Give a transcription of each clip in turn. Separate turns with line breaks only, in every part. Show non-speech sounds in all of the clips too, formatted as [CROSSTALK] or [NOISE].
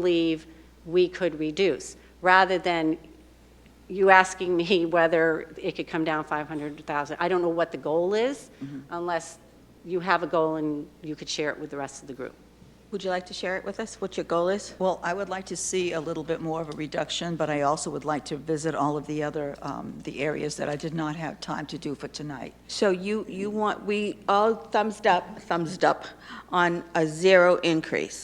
believe we could reduce, rather than you asking me [LAUGHS] whether it could come down 500,000. I don't know what the goal is, unless you have a goal and you could share it with the rest of the group.
Would you like to share it with us, what your goal is?
Well, I would like to see a little bit more of a reduction, but I also would like to visit all of the other, um, the areas that I did not have time to do for tonight.
So you, you want, we all thumbs up, thumbs up on a zero increase.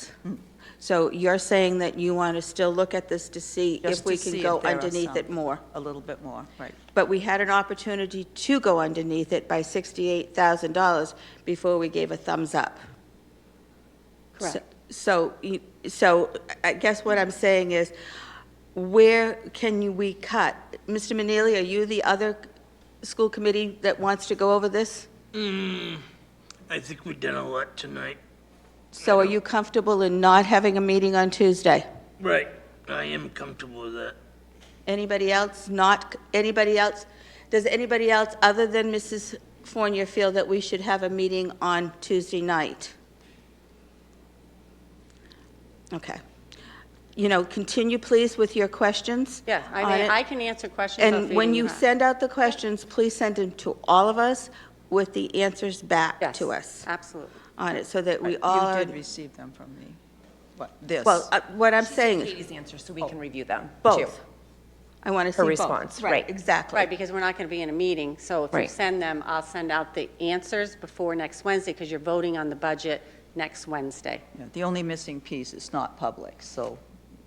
So you're saying that you want to still look at this to see
Just
if we
to
can
see
go
if there are
underneath it
some.
more?
A little bit more, right.
But we had an opportunity to go underneath it by $68,000 before we gave a thumbs up.
Correct.
So, you- so I guess what I'm saying is, where can you- we cut? Mr. Manili, are you the other school committee that wants to go over this?
I think we've done a lot tonight.
So are you comfortable in not having a meeting on Tuesday?
Right. I am comfortable with that.
Anybody else not, anybody else? Does anybody else, other than Mrs. Fournier, feel that we should have a meeting on Tuesday night? Okay. You know, continue, please, with your questions.
Yeah, I
on
mean,
it.
I can answer questions. if
And when you
have.
send out the questions, please send them to all of us with the answers back
Yes, Uh,
to us
Absolutely.
on it, so that we all
You
are.
did receive them from me, what, this?
Well, uh, what I'm saying is. Oh.
Katie's answer, so we can review them. too.
Both. I want to see both.
response, right.
Exactly.
Right, because we're not going to be in a meeting, so if you
Right.
send them, I'll send out the answers before next Wednesday, because you're voting on the budget next Wednesday.
Yeah, The only missing piece is not public, so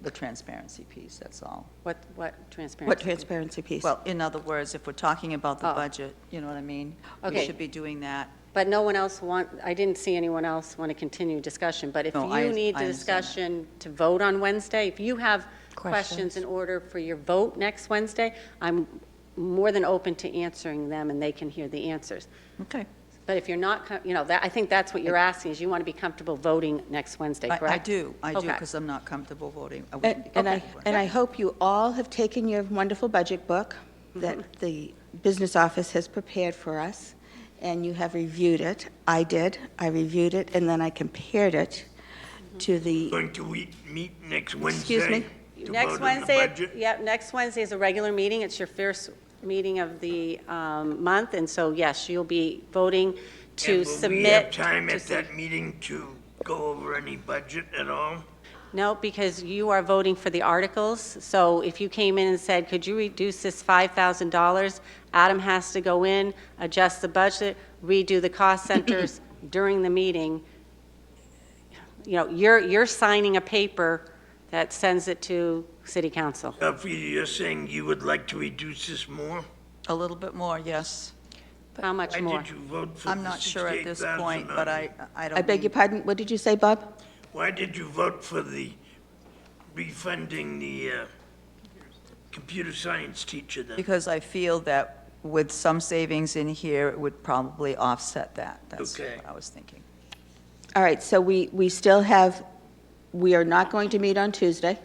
the transparency piece, that's all.
What, what transparency?
What transparency piece?
Well, in other words, if we're talking about the
Oh.
budget, you know what I mean? We
Okay.
should be doing that.
But no one else want, I didn't see anyone else want to continue discussion, but if
No, I-
you need
I
the
understand that.
discussion to vote on Wednesday, if you have questions
Questions.
in order for your vote next Wednesday, I'm more than open to answering them, and they can hear the answers.
Okay.
But if you're not, com- you know, that, I think that's what you're asking, is you want to be comfortable voting next Wednesday,
I-
correct?
I do, I do,
Okay.
because I'm not comfortable voting. I wouldn't
And
be
and I,
comfortable.
and I hope you all have taken your wonderful budget book that the business office has prepared for us, and you have reviewed it. I did, I reviewed it, and then I compared it to the,
Going to we meet next Wednesday?
Excuse me?
to
Next
vote on the
Wednesday,
budget?
yep, next Wednesday is a regular meeting. It's your first meeting of the um, month, and so, yes, you'll be voting to
And will
submit.
we have time
to
at
sub-
that meeting to go over any budget at all?
No, because you are voting for the articles, so if you came in and said, could you reduce this $5,000? Adam has to go in, adjust the budget, redo the cost centers [CLEARS THROAT] during the meeting. You know, you're, you're signing a paper that sends it to city council.
If you're saying you would like to reduce this more?
A little bit more, yes.
How much more?
Why did you vote for the
I'm not sure at this point, but I,
68,000?
I don't.
I beg your pardon, what did you say, Bob?
Why did you vote for the refunding the uh, computer science teacher then?
Because I feel that with some savings in here, it would probably offset that. That's
Okay.
what I was thinking.
All right, so we, we still have, we are not going to meet on Tuesday,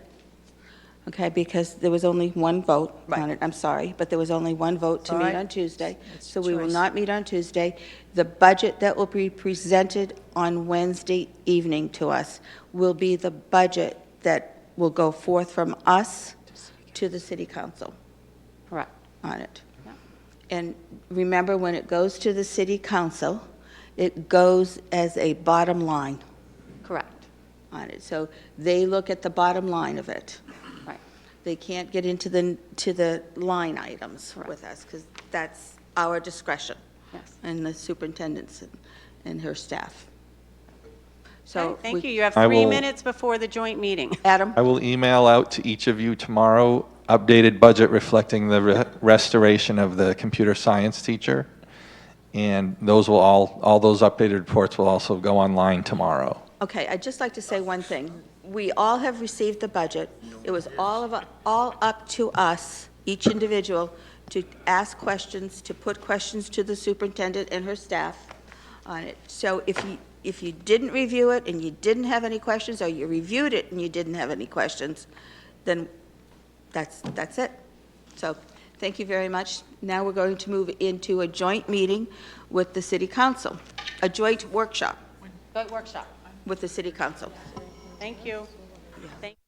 okay, because there was only one vote on
Right.
it, I'm sorry, but there was only one vote to
All
meet
right.
on Tuesday.
It's
So
your
we will
choice.
not meet on Tuesday. The budget that will be presented on Wednesday evening to us will be the budget that will go forth from us to the city council
Correct.
on it. And remember, when it goes to the city council, it goes as a bottom line
Correct,
on it. So they look at the bottom line of it.
right.
They can't get into the, to the line items with us, because that's our discretion.
Yes.
And the superintendent's and- and her staff.
So,
So.
thank
we-
you. You have
I
three
will-
minutes before the joint meeting.
Adam,
I will email out to each of you tomorrow, updated budget reflecting the re- restoration of the computer science teacher. And those will all, all those updated reports will also go online tomorrow.
okay, I'd just like to say one thing. We all have received the budget. It was all of, all up to us, each individual, to ask questions, to put questions to the superintendent and her staff on it. So if you, if you didn't review it and you didn't have any questions, or you reviewed it and you didn't have any questions, then that's, that's it. So, thank you very much. Now we're going to move into a joint meeting with the city council, a joint workshop
Joint workshop.
with the city council.
Thank you. Thank-